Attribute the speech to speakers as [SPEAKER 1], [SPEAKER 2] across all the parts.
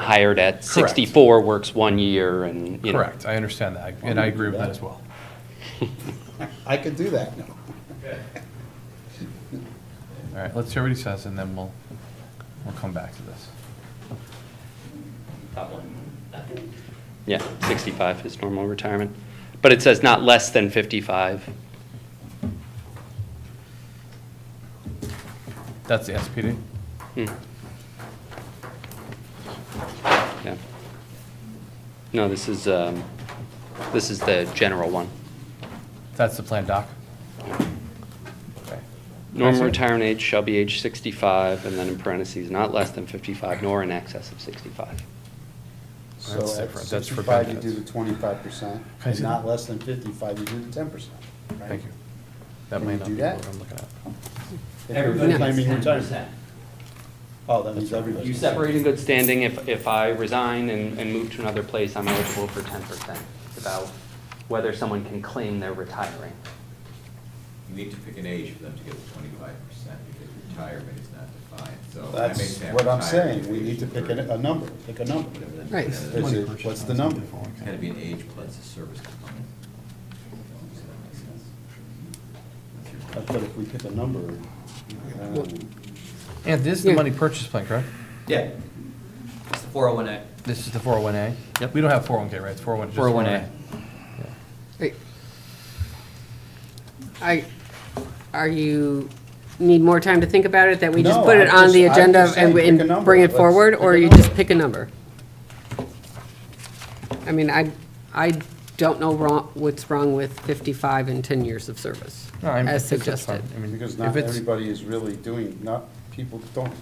[SPEAKER 1] hired at 64 works one year and, you know.
[SPEAKER 2] Correct, I understand that, and I agree with that as well.
[SPEAKER 3] I could do that now.
[SPEAKER 2] All right, let's hear what he says, and then we'll, we'll come back to this.
[SPEAKER 1] Yeah, 65 is normal retirement. But it says not less than 55.
[SPEAKER 2] That's the SPD?
[SPEAKER 1] Hmm. Yeah. No, this is, um, this is the general one.
[SPEAKER 2] That's the plan doc? Okay.
[SPEAKER 1] Normal
[SPEAKER 2] Excellent.
[SPEAKER 1] retirement age shall be age 65, and then in parentheses, not less than 55, nor in excess of 65.
[SPEAKER 3] So
[SPEAKER 2] That's
[SPEAKER 3] at
[SPEAKER 2] different. That's for
[SPEAKER 3] 65, you do
[SPEAKER 2] benefits.
[SPEAKER 3] the twenty-five percent,
[SPEAKER 2] Okay,
[SPEAKER 3] and
[SPEAKER 2] so-
[SPEAKER 3] not less than fifty-five, you do the ten percent.
[SPEAKER 2] Thank you. That
[SPEAKER 3] Can
[SPEAKER 2] may
[SPEAKER 3] you
[SPEAKER 2] not
[SPEAKER 3] do
[SPEAKER 2] be
[SPEAKER 3] that?
[SPEAKER 2] what I'm looking at.
[SPEAKER 3] Everybody claiming retirement.
[SPEAKER 1] 10%.
[SPEAKER 3] Oh, that means everybody.
[SPEAKER 1] You separate in good standing, if, if I resign and, and move to another place, I'm eligible for ten percent. It's about whether someone can claim they're retiring.
[SPEAKER 4] You need to pick an age for them to get the twenty-five percent, because retirement is not defined, so. that makes
[SPEAKER 3] That's
[SPEAKER 4] them
[SPEAKER 3] what I'm
[SPEAKER 4] retired
[SPEAKER 3] saying,
[SPEAKER 4] at
[SPEAKER 3] we need to
[SPEAKER 4] age
[SPEAKER 3] pick a, a
[SPEAKER 4] 30.
[SPEAKER 3] number, pick a number.
[SPEAKER 1] Right.
[SPEAKER 3] Is it- What's the number?
[SPEAKER 4] It's gotta be an age plus a service component. Does that make sense? That's your-
[SPEAKER 3] I thought if we pick a number, um,
[SPEAKER 2] And this is the money purchase plan, correct?
[SPEAKER 5] Yeah. It's the 401A.
[SPEAKER 2] This is the 401A? Yep. We don't have 401K, right? It's 401, just
[SPEAKER 5] 401A.
[SPEAKER 2] 401A. Yeah.
[SPEAKER 6] Wait. I, are you, need more time to think about it, that we just
[SPEAKER 3] No,
[SPEAKER 6] put it
[SPEAKER 3] I'm
[SPEAKER 6] on the
[SPEAKER 3] just- I'm
[SPEAKER 6] agenda
[SPEAKER 3] just
[SPEAKER 6] and,
[SPEAKER 3] saying, pick a
[SPEAKER 6] and
[SPEAKER 3] number.
[SPEAKER 6] bring it
[SPEAKER 3] Let's
[SPEAKER 6] forward,
[SPEAKER 3] pick
[SPEAKER 6] or
[SPEAKER 3] a
[SPEAKER 6] you just
[SPEAKER 3] number.
[SPEAKER 6] pick a number? I mean, I, I don't know wrong, what's wrong with fifty-five and ten years of service,
[SPEAKER 2] No, I'm-
[SPEAKER 6] as
[SPEAKER 2] I think that's fine.
[SPEAKER 6] suggested.
[SPEAKER 2] I mean,
[SPEAKER 3] because
[SPEAKER 2] if
[SPEAKER 3] not
[SPEAKER 2] it's-
[SPEAKER 3] everybody is really doing, not, people don't,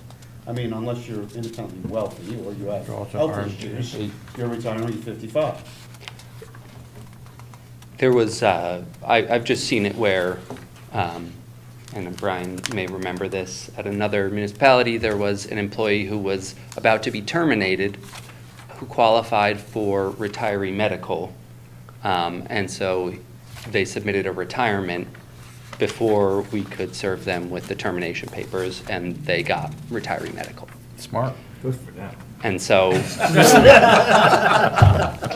[SPEAKER 3] I mean, unless you're independently wealthy or you have
[SPEAKER 2] You're also
[SPEAKER 3] health
[SPEAKER 2] armed,
[SPEAKER 3] issues,
[SPEAKER 2] yeah.
[SPEAKER 3] you're retiring at fifty-five.
[SPEAKER 1] There was, uh, I, I've just seen it where, um, and Brian may remember this, at another municipality, there was an employee who was about to be terminated, who qualified for retiree medical. Um, and so they submitted a retirement before we could serve them with the termination papers, and they got retiree medical.
[SPEAKER 2] Smart.
[SPEAKER 1] And so,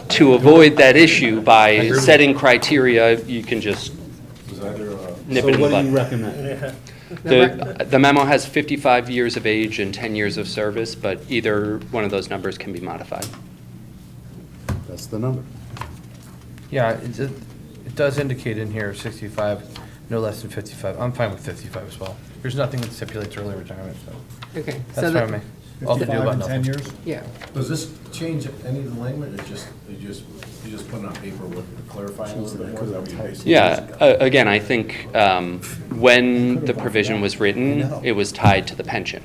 [SPEAKER 1] to avoid that issue by setting criteria, you can just nip it
[SPEAKER 3] So
[SPEAKER 1] in the
[SPEAKER 3] what do you
[SPEAKER 1] bud.
[SPEAKER 3] recommend?
[SPEAKER 1] The the memo has 55 years of age and 10 years of service, but either one of those numbers can be modified.
[SPEAKER 3] That's the number.
[SPEAKER 2] Yeah, it, it it does indicate in here 65, no less than 55. I'm fine with 55 as well. There's nothing that stipulates early retirement, so
[SPEAKER 6] Okay, so
[SPEAKER 2] that's fine with
[SPEAKER 6] that,
[SPEAKER 2] me. All to do about nothing.
[SPEAKER 6] yeah,
[SPEAKER 7] Does this change any of the language, or just, you just, you just put it on paper with clarifying a little bit more? Is that what you're basically-
[SPEAKER 1] Yeah, a- again, I think um, when the provision was written, it was tied to the pension,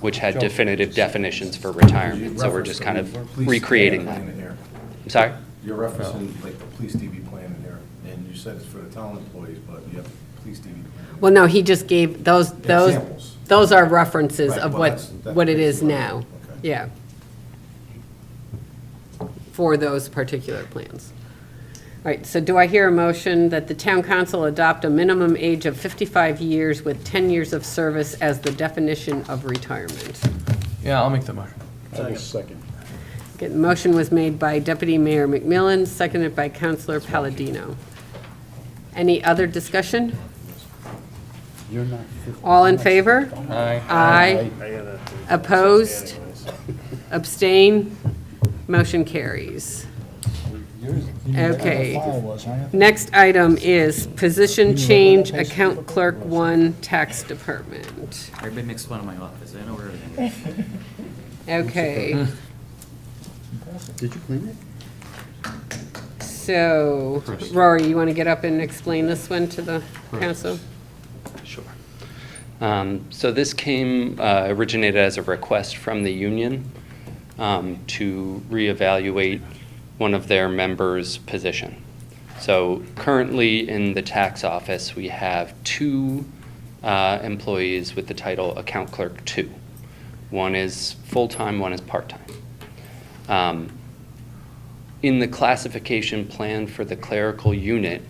[SPEAKER 1] which had definitive definitions for retirement, so we're just kind of
[SPEAKER 7] Police
[SPEAKER 1] recreating
[SPEAKER 7] TV
[SPEAKER 1] that.
[SPEAKER 7] plan in here.
[SPEAKER 1] I'm sorry?
[SPEAKER 7] You're referencing like the police TV plan in there, and you said it's for the town employees, but you have the police TV. plan.
[SPEAKER 6] well, no, he just gave, those, those,
[SPEAKER 7] Examples.
[SPEAKER 6] those are references
[SPEAKER 7] Right,
[SPEAKER 6] of
[SPEAKER 7] well,
[SPEAKER 6] what,
[SPEAKER 7] that's- that
[SPEAKER 6] what it
[SPEAKER 7] makes
[SPEAKER 6] is
[SPEAKER 7] sense.
[SPEAKER 6] now,
[SPEAKER 7] Okay.
[SPEAKER 6] yeah. For those particular plans. All right, so do I hear a motion that the town council adopt a minimum age of 55 years with 10 years of service as the definition of retirement?
[SPEAKER 2] Yeah, I'll make the motion.
[SPEAKER 3] I will second.
[SPEAKER 6] Okay, the motion was made by Deputy Mayor McMillan, seconded by Councilor Palladino. Any other discussion?
[SPEAKER 3] You're not. 50.
[SPEAKER 6] All in favor?
[SPEAKER 2] Aye.
[SPEAKER 6] Aye. Opposed? Abstain? Motion carries. Okay. Next item is position change, account clerk one, tax department.
[SPEAKER 5] Everybody makes fun of my office. I know where everything is.
[SPEAKER 6] Okay,
[SPEAKER 3] Did you clean it?
[SPEAKER 6] so Rory, you want to get up and explain this one to the council?
[SPEAKER 1] Sure. Um, So this came, uh, originated as a request from the union um, to reevaluate one of their members' position. So currently, in the tax office, we have two uh, employees with the title Account Clerk Two. One is full-time, one is part-time. Um, In the classification plan for the clerical unit,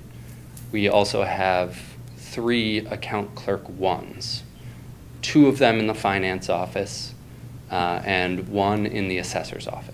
[SPEAKER 1] we also have three account clerk ones, two of them in the finance office uh, and one in the assessor's office.